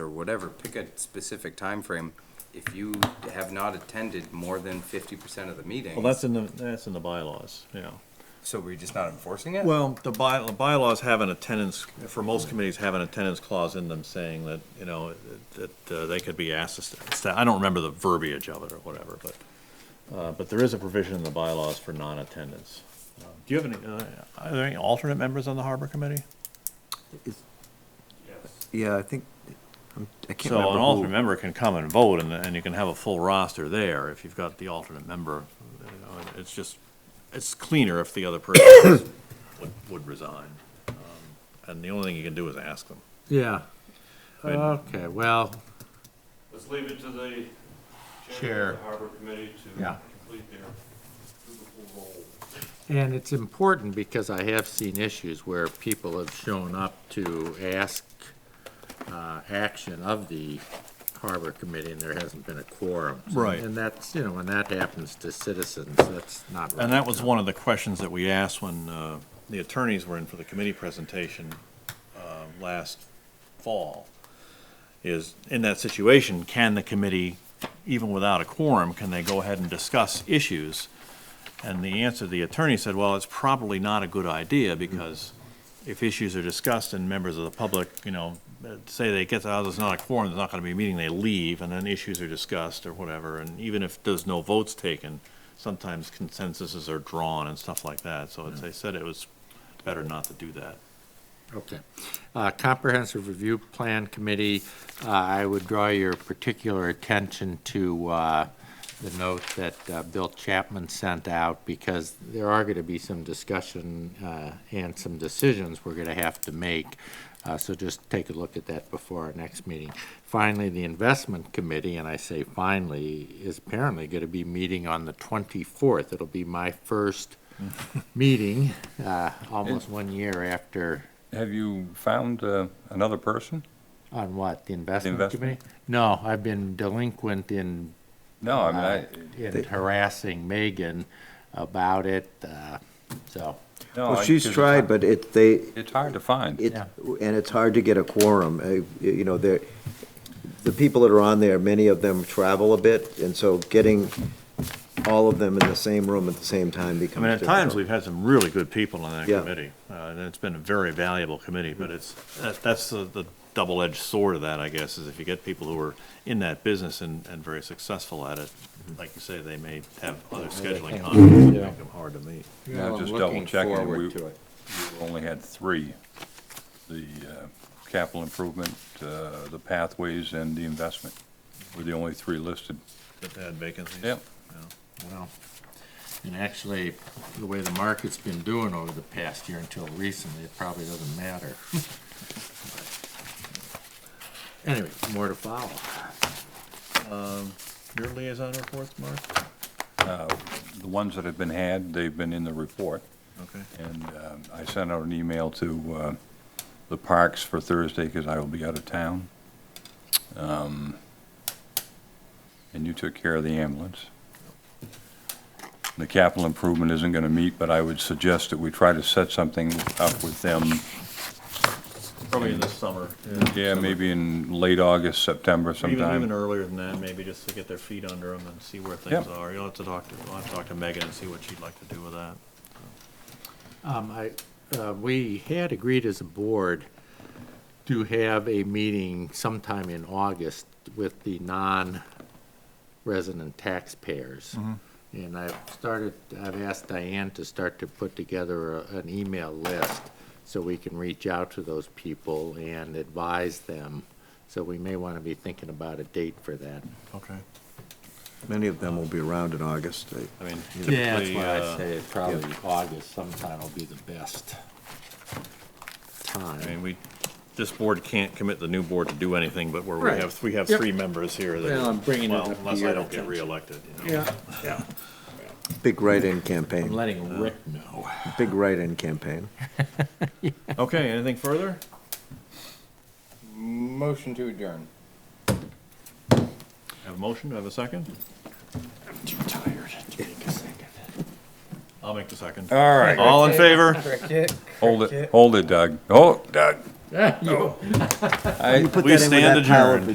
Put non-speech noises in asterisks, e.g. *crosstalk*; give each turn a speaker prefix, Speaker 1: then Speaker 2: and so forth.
Speaker 1: whatever, pick a specific time frame. If you have not attended more than fifty percent of the meetings.
Speaker 2: Well, that's in the, that's in the bylaws, yeah.
Speaker 1: So we're just not enforcing it?
Speaker 2: Well, the by, the bylaws have an attendance, for most committees, have an attendance clause in them saying that, you know, that uh, they could be asked to, sta- sta- I don't remember the verbiage of it or whatever, but, uh, but there is a provision in the bylaws for non-attendance. Uh, Do you have any, uh, are there any alternate members on the harbor committee?
Speaker 3: Yeah, I think, I'm- I can't
Speaker 2: So an alternate
Speaker 3: remember who.
Speaker 2: member can come and vote, and, and you can have a full roster there if you've got the alternate member. you know, and It's just, it's cleaner if the other person
Speaker 3: *coughs*
Speaker 2: is- would, would resign. Um, And the only thing you can do is ask them.
Speaker 4: Yeah.
Speaker 2: mean-
Speaker 4: Okay, well,
Speaker 5: Let's leave it to the
Speaker 4: Chair.
Speaker 5: chair of the harbor committee to
Speaker 4: Yeah.
Speaker 5: complete their dutiful role.
Speaker 4: and it's important because I have seen issues where people have shown up to ask uh, action of the Harbor Committee and there hasn't been a quorum.
Speaker 2: Right.
Speaker 4: And that's, you know, when that happens to citizens, that's not right.
Speaker 2: And that was one of the questions that we asked when uh, the attorneys were in for the committee presentation uh, last fall, is, in that situation, can the committee, even without a quorum, can they go ahead and discuss issues? And the answer, the attorney said, well, it's probably not a good idea, because if issues are discussed and members of the public, you know, uh, say they get, oh, there's not a quorum, there's not gonna be a meeting, they leave, and then issues are discussed or whatever, and even if there's no votes taken, sometimes consensuses are drawn and stuff like that, so it's, they said it was better not to do that.
Speaker 4: Okay. Uh, Comprehensive Review Plan Committee, uh, I would draw your particular attention to uh, the note that uh, Bill Chapman sent out, because there are going to be some discussion uh, and some decisions we're going to have to make. Uh, So just take a look at that before our next meeting. Finally, the Investment Committee, and I say finally, is apparently going to be meeting on the 24th. It'll be my first meeting, uh, almost one year after
Speaker 6: Have you found uh, another person?
Speaker 4: on what, the investment committee?
Speaker 6: investment?
Speaker 4: No, I've been delinquent in,
Speaker 6: No, Oh, I mean,
Speaker 4: uh,
Speaker 6: I,
Speaker 4: in harassing Megan about it, uh, so.
Speaker 6: no.
Speaker 3: Well,
Speaker 6: Oh, I-
Speaker 3: she's
Speaker 6: 'cause it's
Speaker 3: tried,
Speaker 6: hard-
Speaker 3: but it, they,
Speaker 6: It's hard to find.
Speaker 3: it,
Speaker 4: Yeah.
Speaker 3: and it's hard to get a quorum. Uh, You know, there, the people that are on there, many of them travel a bit, and so getting all of them in the same room at the same time
Speaker 2: I
Speaker 3: becomes
Speaker 2: mean, at
Speaker 3: difficult.
Speaker 2: times, we've had some really good people on that
Speaker 3: Yeah.
Speaker 2: committee, uh, and it's been a very valuable committee, but it's, that- that's the, the double-edged sword of that, I guess, is if you get people who are in that business and, and very successful at it, like you say, Mm-hmm. they may have other scheduling conflicts that make them hard to meet.
Speaker 6: Yeah,
Speaker 4: Well, I'm
Speaker 6: just
Speaker 4: looking
Speaker 6: double checking.
Speaker 4: forward
Speaker 6: We
Speaker 4: to it.
Speaker 6: we only had three. The uh, capital improvement, uh, the pathways, and the investment were the only three listed.
Speaker 2: That they had vacancies.
Speaker 6: Yep.
Speaker 4: Well, And actually, the way the market's been doing over the past year until recently, it probably doesn't matter. *laughs* Anyway, more to follow.
Speaker 2: Your liaison reports, Mark?
Speaker 6: The ones that have been had, they've been in the report.
Speaker 2: Okay.
Speaker 6: And um, I sent out an email to uh, the parks for Thursday because I will be out of town. Um, And you took care of the ambulance. The capital improvement isn't going to meet, but I would suggest that we try to set something up with them,
Speaker 2: Probably in the summer.
Speaker 6: yeah, maybe in late August, September
Speaker 2: Or Even, even
Speaker 6: sometime.
Speaker 2: earlier than that, maybe, just to get their feet under them and see where things
Speaker 6: Yep.
Speaker 2: are. You'll have to talk to, I'll have to talk to Megan and see what she'd like to do with that.
Speaker 4: Um, I, uh, we had agreed as a board to have a meeting sometime in August with the non-resident taxpayers.
Speaker 2: Mm-hmm.
Speaker 4: And I've started, I've asked Diane to start to put together a- an email list so we can reach out to those people and advise them. So we may want to be thinking about a date for that.
Speaker 2: Okay.
Speaker 3: Many of them will be around in August. I-
Speaker 2: I mean,
Speaker 4: Yeah, that's
Speaker 2: typically,
Speaker 4: why I
Speaker 2: uh,
Speaker 4: say probably August sometime will be the best
Speaker 2: I
Speaker 4: time.
Speaker 2: mean, we, this board can't commit the new board to do anything, but where we
Speaker 4: Right.
Speaker 2: have, we have
Speaker 4: Yep.
Speaker 2: three members here that.
Speaker 4: Well, I'm bringing it
Speaker 2: well,
Speaker 4: up to
Speaker 2: Unless
Speaker 4: your
Speaker 2: I don't get
Speaker 4: attention.
Speaker 2: reelected, you know.
Speaker 4: Yeah.
Speaker 2: Yeah.
Speaker 3: Big write-in
Speaker 4: I'm
Speaker 3: campaign,
Speaker 4: letting
Speaker 2: Uh,
Speaker 4: Rick know.
Speaker 3: big write-in campaign.
Speaker 2: Okay, anything further?
Speaker 1: Motion to adjourn.
Speaker 2: Have a motion, Do I have a second?
Speaker 4: Too tired to take a second.
Speaker 2: I'll make the second.
Speaker 6: All right,
Speaker 2: All in favor?
Speaker 6: hold it, hold it, Doug. Oh, Doug.
Speaker 4: Yeah, you-
Speaker 6: I-
Speaker 2: We stand adjourned.